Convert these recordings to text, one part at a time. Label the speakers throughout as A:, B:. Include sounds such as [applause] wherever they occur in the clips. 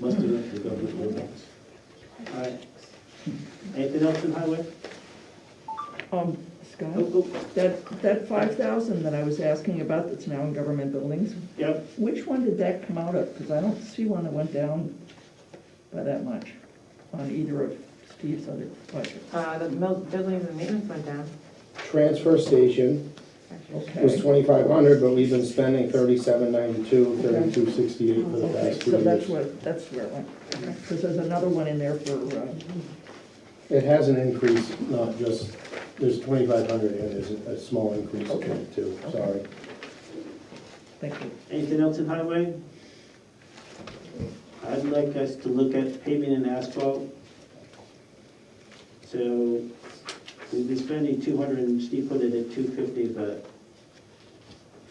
A: must do it for government buildings. All right. Anything else in highway?
B: Um,
A: Oh,
B: Scott,
A: oh,
B: that, that five thousand that I was asking about that's now in government buildings,
A: Yep,
B: which one did that come out of? Because I don't see one that went down by that much on either of Steve's other budgets.
C: Uh, the mil- buildings and maintenance went down.
D: Transfer station
C: actually.
D: was
B: Okay,
D: twenty-five hundred, but we've been spending thirty-seven ninety-two, thirty-two sixty-eight for the
B: okay,
D: past two
B: so that's
D: years.
B: where, that's where it went. Because there's another one in there for, uh,
D: It has an increase, not just, there's twenty-five hundred and there's a a small increase in it too, sorry.
B: thank you.
A: anything else in highway? I'd like us to look at paving and asphalt. So we've been spending two hundred, and Steve put it at two fifty, but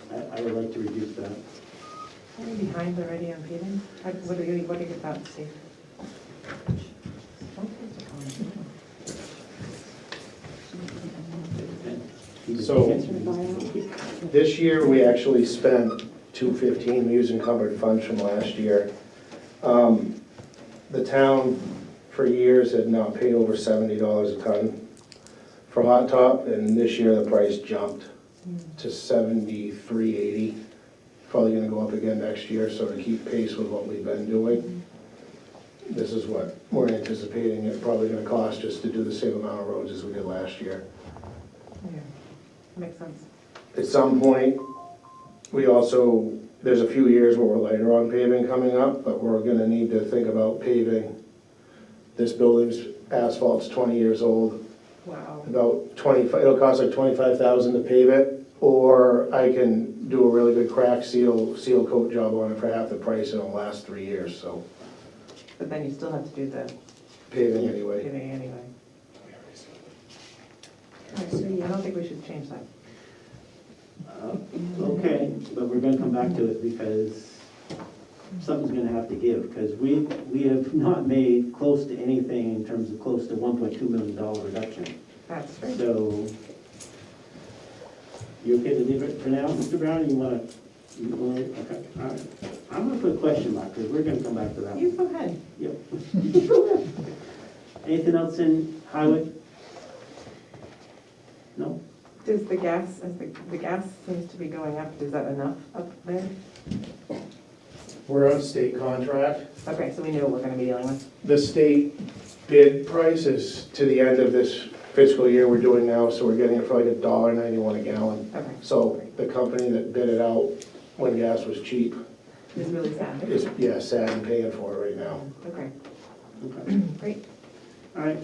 A: I, I would like to reduce that.
C: Are we behind already on paving? How- What are you, what are your thoughts, Steve?
D: So-
A: Answer the
D: This year, we actually spent two fifteen, we used encumbered funds from last year. Um, The town for years had not paid over seventy dollars a ton for hot top, and this year the price jumped to seventy-three eighty. Probably gonna go up again next year, so to keep pace with what we've been doing, this is what we're anticipating it probably gonna cost just to do the same amount of roads as we did last year.
C: Yeah, Makes sense.
D: At some point, we also, there's a few years where we're lighter on paving coming up, but we're gonna need to think about paving. This building's asphalt's twenty years old,
C: Wow.
D: about twenty-five, it'll cost like twenty-five thousand to pave it, or I can do a really good crack seal, seal coat job on it for half the price and it'll last three years, so
C: But then you still have to do the
D: paving anyway.
C: paving anyway. I don't think we should change that.
A: Uh, Okay, but we're gonna come back to it because something's gonna have to give, because we, we have not made close to anything in terms of close to one point two million dollar reduction.
C: That's right.
A: So, you okay to leave it for now, Mr. Brown, you wanna, you wanna, okay, all right. I'm gonna put a question mark, because we're gonna come back to that.
C: You
A: one.
C: go ahead.
A: Yep. [laughs] Anything else in highway? No?
C: Does the gas, is the, the gas seems to be going up, is that enough up there?
E: We're on state contract.
C: Okay, so we know what we're gonna be dealing with.
E: The state bid price is,
D: To the end of this fiscal year we're doing now, so we're getting it for like a dollar ninety-one a gallon.
C: Okay,
D: So the company that bid it out when gas was cheap
C: it's really sad.
D: is, yeah, sad and paying for it right now.
C: Okay,
A: Okay.
C: great.
A: All right.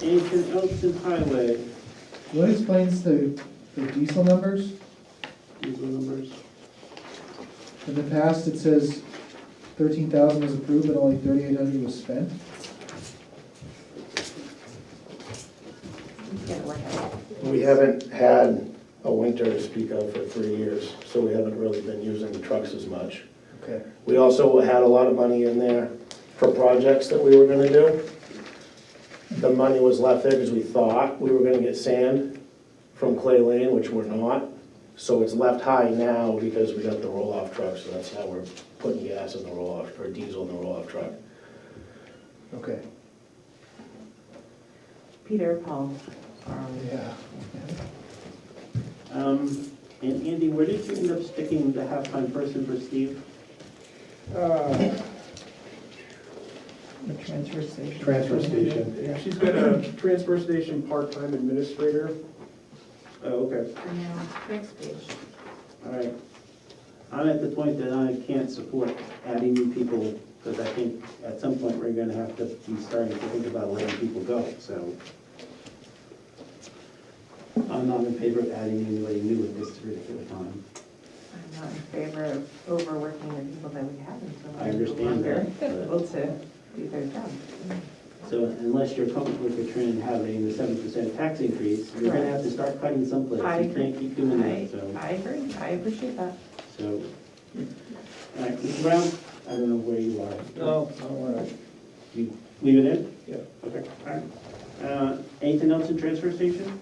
A: Anything else in highway,
F: What explains the, the diesel numbers?
A: diesel numbers?
F: In the past, it says thirteen thousand was approved, but only thirty-eight hundred was spent.
C: Let's Get it worked out.
D: We haven't had a winter to speak of for three years, so we haven't really been using the trucks as much.
F: Okay.
D: We also had a lot of money in there for projects that we were gonna do. The money was left there because we thought we were gonna get sand from Clay Lane, which we're not. So it's left high now because we got the roll-off truck, so that's how we're putting gas in the roll-off, or diesel in the roll-off truck.
F: Okay,
C: Peter, Paul, um,
F: yeah.
A: Um, and Andy, where did you end up sticking the halftime person for Steve?
B: The transfer station.
D: Transfer station.
B: Yeah.
G: She's been a transfer station part-time administrator.
A: Oh, okay.
C: Next page.
A: All right. I'm at the point that I can't support adding new people, because I think at some point we're gonna have to be starting to think about letting people go, so. I'm not in favor of adding anybody new at this particular time.
C: I'm not in favor of overworking the people that we have until
A: I understand
C: they're
A: that,
C: no longer
A: but-
C: able to do their job.
A: So unless you're comfortable with the trend having the seven percent tax increase, you're gonna have to start cutting someplace.
C: I
A: You can't keep doing
C: I,
A: that, so,
C: I agree, I appreciate that.
A: so. All right, Mr. Brown, I don't know where you are. You leave it in?
D: Yeah.
A: Okay, all right. Uh, anything else in transfer station?